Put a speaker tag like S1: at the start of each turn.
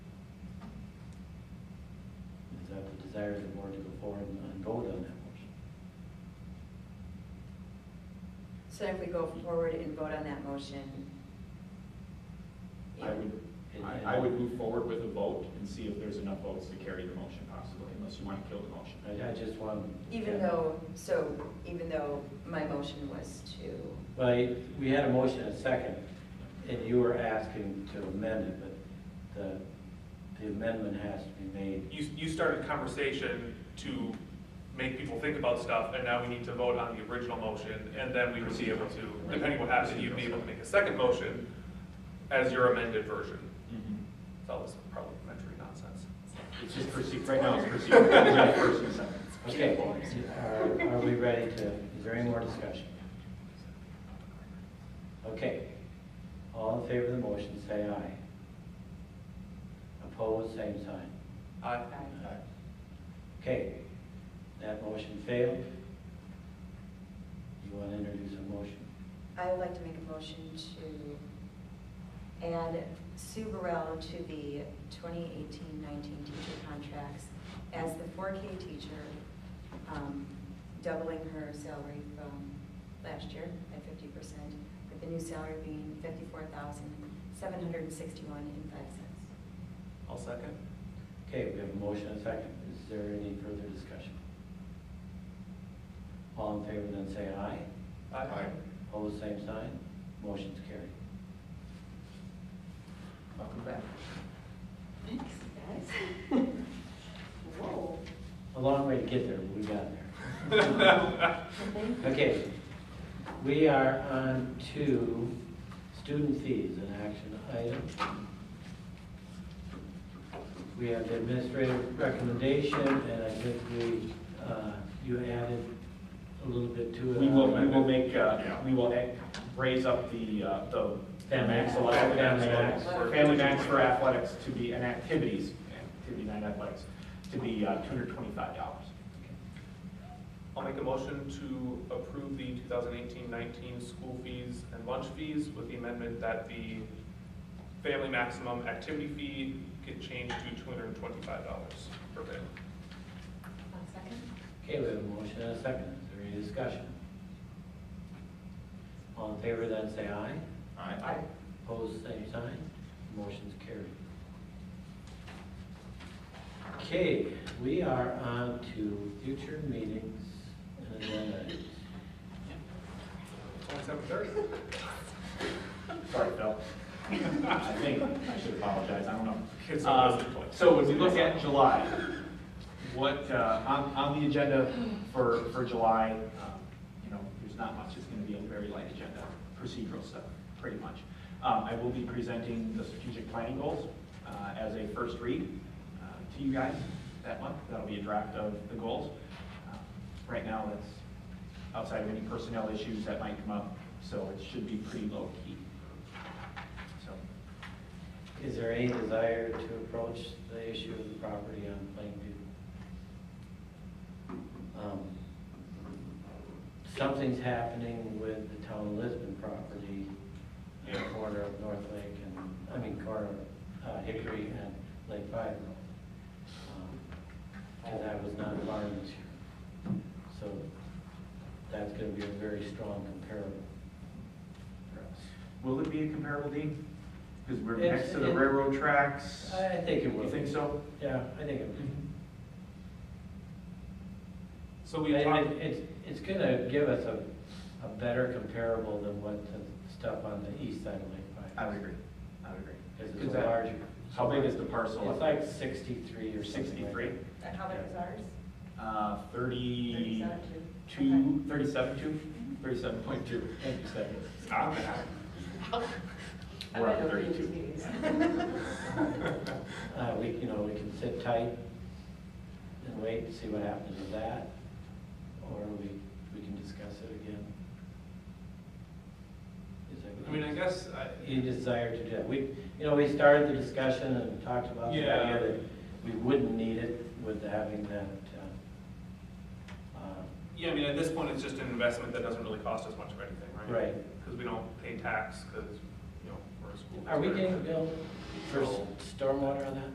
S1: desire of the board to go forward and and vote on that motion.
S2: So if we go forward and vote on that motion.
S3: I would,
S1: And- and-
S3: I, I would move forward with a vote and see if there's enough votes to carry the motion possibly, unless you want to kill the motion.
S1: I, I just want.
S2: Even though, so even though my motion was to.
S1: Well, I- we had a motion and a second, and you were asking to amend it, but the, the amendment has to be made.
S4: You, you started a conversation to make people think about stuff, and now we need to vote on the original motion, and then we would be able to, depending what happens, you'd be able to make a second motion as your amended version.
S1: Mm-hmm.
S4: It's all this parliamentary nonsense.
S3: It's just proceed, right now it's proceed. First and second.
S1: Okay, are, are we ready to, is there any more discussion? Okay, all in favor of the motion, say aye. Opposed, same sign.
S4: Aye.
S1: Okay, that motion failed. You want to introduce a motion?
S2: I would like to make a motion to add Sue Burrell to the 2018-19 teacher contracts as the 4K teacher, um, doubling her salary from last year at 50%, with the new salary being $54,761.05.
S4: I'll second.
S1: Okay, we have a motion and a second. Is there any further discussion? All in favor, then say aye.
S4: Aye.
S1: Opposed, same sign. Motion's carried.
S3: Welcome back.
S2: Thanks, guys. Whoa.
S1: A long way to get there, but we got there. Okay, we are on to student fees, an action item. We have the administrative recommendation, and I think we, uh, you added a little bit to it.
S3: We will, we will make, uh, we will ac- raise up the, uh, the
S1: Family
S3: max
S1: max.
S3: allowable,
S1: Family max.
S3: family max for athletics to be, and activities, activity night athletics, to be uh, two hundred twenty-five dollars.
S4: I'll make a motion to approve the 2018-19 school fees and lunch fees with the amendment that the family maximum activity fee get changed to $225 per day.
S2: second?
S1: Okay, we have a motion and a second. Is there any discussion? All in favor, then say aye.
S3: Aye.
S1: Opposed, same sign. Motion's carried. Okay, we are on to future meetings and agenda items.
S4: Only 7:30?
S3: Sorry, Phil. I think, I should apologize, I don't know.
S4: Kids don't
S3: Uh,
S4: listen to us.
S3: So when we look at July, what, uh, on, on the agenda for, for July, um, you know, there's not much, it's gonna be a very light agenda, procedural stuff, pretty much. Um, I will be presenting the strategic planning goals uh, as a first read uh, to you guys that month. That'll be a draft of the goals. Uh, Right now, that's outside of any personnel issues that might come up, so it should be pretty low-key. So,
S1: Is there any desire to approach the issue of the property on Plainview? Um, Something's happening with the town of Lisbon property, in the corner of North Lake and, I mean, corner of uh, Hickory and Lake Five Road. Um, And that was not farmed this year. So that's gonna be a very strong comparable for us.
S3: Will it be a comparable deed? Because we're
S1: It's-
S3: next to the
S1: it-
S3: railroad tracks.
S1: I I think it will.
S3: You think so?
S1: Yeah, I think it will.
S4: So we
S1: And
S4: talked,
S1: it- it's, it's gonna give us a, a better comparable than what the stuff on the east side of Lake
S3: I
S1: Pine.
S3: would agree. I would agree.
S1: Because it's
S3: Is
S1: a
S3: that-
S1: larger.
S3: How big is the parcel?
S1: It's like sixty-three or something like
S3: 63?
S1: that.
S2: And how big was ours?
S3: Uh, 32, 37, 2? 37.2, thank you, Stephanie.
S4: Ah, man.
S3: We're up to 32.
S1: Uh, we, you know, we can sit tight and wait and see what happens with that, or we, we can discuss it again. Is that what
S4: I mean, I guess, I-
S1: You desire to do that. We, you know, we started the discussion and talked about the
S4: Yeah.
S1: idea that we wouldn't need it with having that, uh, uh,
S4: yeah, I mean, at this point, it's just an investment that doesn't really cost us much of anything, right?
S1: right.
S4: Because we don't pay tax, because, you know, we're a school.
S1: Are we
S4: district.
S1: getting billed for s- stormwater on that?